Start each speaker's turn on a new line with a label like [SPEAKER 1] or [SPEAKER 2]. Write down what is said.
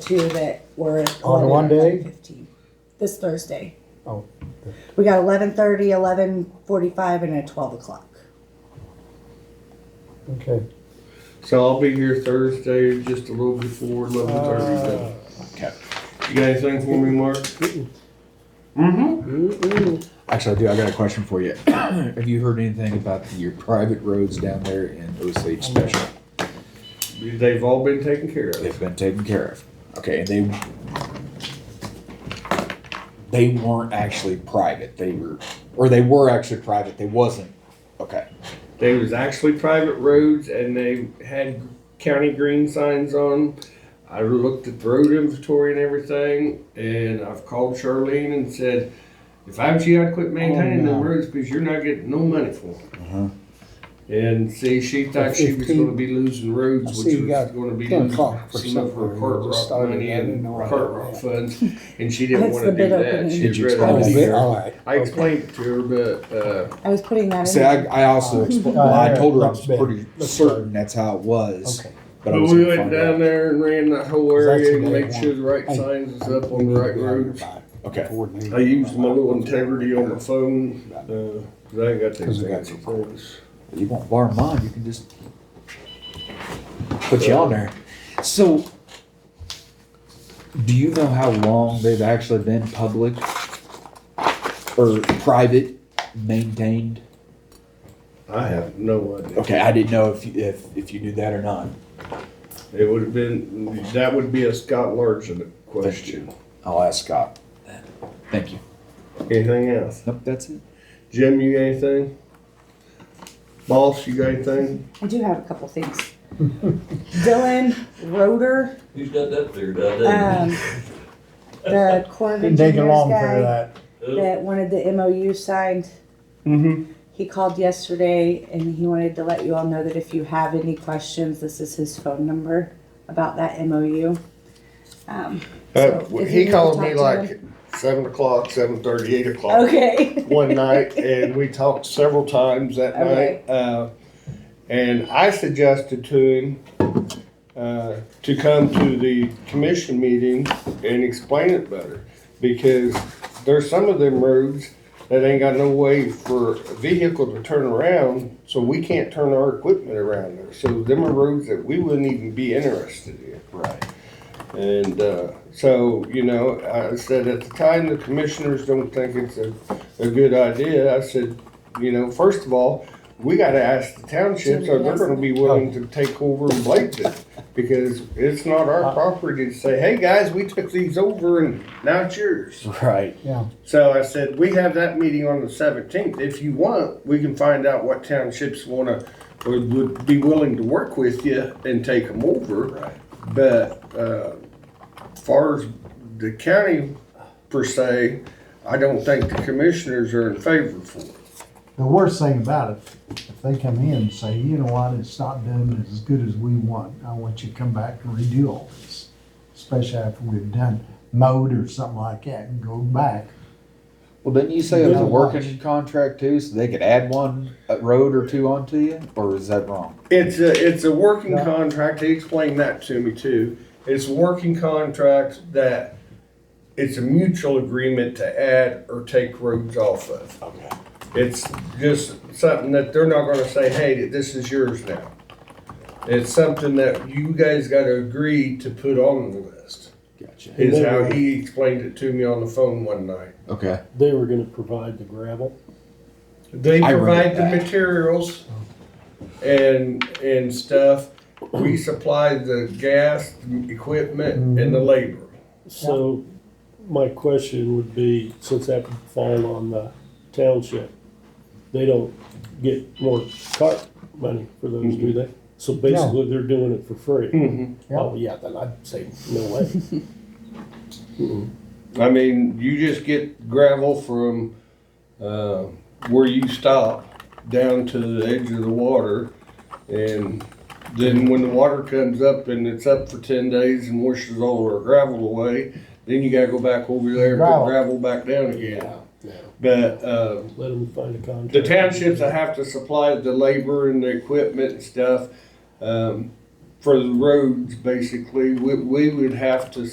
[SPEAKER 1] two that were.
[SPEAKER 2] On one day?
[SPEAKER 1] 15. This Thursday.
[SPEAKER 2] Oh.
[SPEAKER 1] We got eleven thirty, eleven forty-five, and at twelve o'clock.
[SPEAKER 2] Okay.
[SPEAKER 3] So I'll be here Thursday, just a little before eleven
[SPEAKER 4] Uh,
[SPEAKER 3] thirty.
[SPEAKER 5] Okay.
[SPEAKER 3] You got anything for me, Mark? Mm-hmm.
[SPEAKER 5] Actually, I do. I got a question for you. Have you heard anything about your private roads down there in Osage Special?
[SPEAKER 3] They've all been taken care of.
[SPEAKER 5] They've been taken care of. Okay, and they they weren't actually private. They were, or they were actually private. They wasn't. Okay.
[SPEAKER 3] They was actually private roads and they had county green signs on. 'em. I looked at the road inventory and everything, and I've called Charlene and said, if I was you, I'd quit maintaining
[SPEAKER 2] Oh,
[SPEAKER 3] them
[SPEAKER 2] no.
[SPEAKER 3] roads because you're not getting no money for
[SPEAKER 5] Uh-huh.
[SPEAKER 3] them. And see, she thought she was gonna be losing
[SPEAKER 2] I
[SPEAKER 3] roads,
[SPEAKER 2] see
[SPEAKER 3] which
[SPEAKER 2] you
[SPEAKER 3] was
[SPEAKER 2] got
[SPEAKER 3] gonna be
[SPEAKER 2] 10
[SPEAKER 3] losing some
[SPEAKER 2] o'clock for
[SPEAKER 3] of her
[SPEAKER 2] supper.
[SPEAKER 3] cart
[SPEAKER 2] You just
[SPEAKER 3] rock
[SPEAKER 2] started.
[SPEAKER 3] money
[SPEAKER 2] I didn't
[SPEAKER 3] and
[SPEAKER 2] know
[SPEAKER 3] cart
[SPEAKER 2] about
[SPEAKER 3] rock
[SPEAKER 2] that.
[SPEAKER 3] funds, and she didn't
[SPEAKER 1] That's
[SPEAKER 3] wanna
[SPEAKER 1] the
[SPEAKER 3] do
[SPEAKER 1] bid
[SPEAKER 3] that.
[SPEAKER 1] opening.
[SPEAKER 3] She'd
[SPEAKER 5] Did you
[SPEAKER 3] rather be
[SPEAKER 5] explain
[SPEAKER 2] Oh,
[SPEAKER 5] the
[SPEAKER 3] there.
[SPEAKER 2] yeah, all right.
[SPEAKER 3] I explained it to her, but, uh,
[SPEAKER 1] I was putting that in.
[SPEAKER 5] See,
[SPEAKER 1] there.
[SPEAKER 5] I, I also expl- well, I told her I was pretty
[SPEAKER 2] Looks
[SPEAKER 5] certain that's how it was,
[SPEAKER 2] Okay.
[SPEAKER 5] but I
[SPEAKER 3] But
[SPEAKER 5] was
[SPEAKER 3] we
[SPEAKER 5] gonna
[SPEAKER 3] went
[SPEAKER 5] find out.
[SPEAKER 3] down there and ran that whole
[SPEAKER 2] Cause that's
[SPEAKER 3] area
[SPEAKER 2] the
[SPEAKER 3] and
[SPEAKER 2] day
[SPEAKER 3] made sure the right
[SPEAKER 2] I-
[SPEAKER 3] signs was up on the right roads.
[SPEAKER 5] Okay.
[SPEAKER 3] I used my little integrity on my phone, uh, 'cause I ain't got that
[SPEAKER 2] Cause we got
[SPEAKER 3] fancy
[SPEAKER 2] your-
[SPEAKER 3] things.
[SPEAKER 5] You won't borrow mine. You can just put you on there. So, do you know how long they've actually been public or private maintained?
[SPEAKER 3] I have no idea.
[SPEAKER 5] Okay, I didn't know if you, if if you knew that or not.
[SPEAKER 3] It would have been, that would be a Scott Larson question.
[SPEAKER 5] I'll ask Scott. Thank you.
[SPEAKER 3] Anything else?
[SPEAKER 5] Nope, that's it.
[SPEAKER 3] Jim, you got anything? Boss, you got anything?
[SPEAKER 1] I do have a couple things. Dylan Roder,
[SPEAKER 6] Who's got that figured out?
[SPEAKER 1] um, the Corps of
[SPEAKER 2] Didn't take you
[SPEAKER 1] Engineers
[SPEAKER 2] long for
[SPEAKER 1] guy
[SPEAKER 2] that.
[SPEAKER 1] that wanted the MOU signed.
[SPEAKER 3] Mm-hmm.
[SPEAKER 1] He called yesterday and he wanted to let you all know that if you have any questions, this is his phone number about that MOU. Um,
[SPEAKER 3] Uh,
[SPEAKER 1] So, if
[SPEAKER 3] he
[SPEAKER 1] you
[SPEAKER 3] called
[SPEAKER 1] wanna
[SPEAKER 3] me
[SPEAKER 1] talk to
[SPEAKER 3] like seven o'clock, seven thirty, eight o'clock.
[SPEAKER 1] okay.
[SPEAKER 3] one night and we talked several times that
[SPEAKER 1] Okay.
[SPEAKER 3] night. Uh, and I suggested to him uh, to come to the commission meeting and explain it better because there's some of them roads that ain't got no way for a vehicle to turn around, so we can't turn our equipment around there. So them are roads that we wouldn't even be interested in.
[SPEAKER 5] Right.
[SPEAKER 3] And uh, so, you know, I said at the time, the commissioners don't think it's a, a good idea. I said, you know, first of all, we gotta ask the townships, are they gonna be willing to take over and blade it? Because it's not our property to say, hey, guys, we took these over and now it's yours.
[SPEAKER 5] Right.
[SPEAKER 2] Yeah.
[SPEAKER 3] So I said, we have that meeting on the seventeenth. If you want, we can find out what townships wanna, would, would be willing to work with you and take them over. But, uh, far as the county per se, I don't think the commissioners are in favor for it.
[SPEAKER 4] The worst thing about it, if they come in and say, you know what, it's not done as good as we want, I want you to come back and redo all this. Especially after we've done mowed or something like that and go back.
[SPEAKER 5] Well, didn't you say it was a
[SPEAKER 4] Good
[SPEAKER 5] working contract too, so they could add one uh, road or two onto you, or is that wrong?
[SPEAKER 3] It's a, it's a working
[SPEAKER 2] Yeah.
[SPEAKER 3] contract, he explained that to me too. It's a working contract that it's a mutual agreement to add or take roads off of.
[SPEAKER 5] Okay.
[SPEAKER 3] It's just something that they're not gonna say, hey, this is yours now. It's something that you guys gotta agree to put on the list,
[SPEAKER 5] Gotcha.
[SPEAKER 3] is how he explained it to me on the phone one night.
[SPEAKER 5] Okay.
[SPEAKER 7] They were gonna provide the gravel.
[SPEAKER 3] They
[SPEAKER 5] I read
[SPEAKER 3] provide the
[SPEAKER 5] that.
[SPEAKER 3] materials and, and stuff. We supply the gas, the equipment, and the labor.
[SPEAKER 7] So my question would be, since that would fall on the township, they don't get more cart money for those,
[SPEAKER 3] Mm-hmm.
[SPEAKER 7] do they? So basically, they're doing it for
[SPEAKER 3] Hmm.
[SPEAKER 7] free. Oh, yeah, then I'd say, no way.
[SPEAKER 3] I mean, you just get gravel from, uh, where you stop down to the edge of the water. And then when the water comes up and it's up for ten days and washes all our gravel away, then you gotta go back over there and put
[SPEAKER 2] Gravel.
[SPEAKER 3] gravel back down again.
[SPEAKER 7] No,
[SPEAKER 3] But, uh,
[SPEAKER 7] let them find a contract.
[SPEAKER 3] The townships that have to supply the labor and the equipment and stuff, um, for the roads, basically, we, we would have to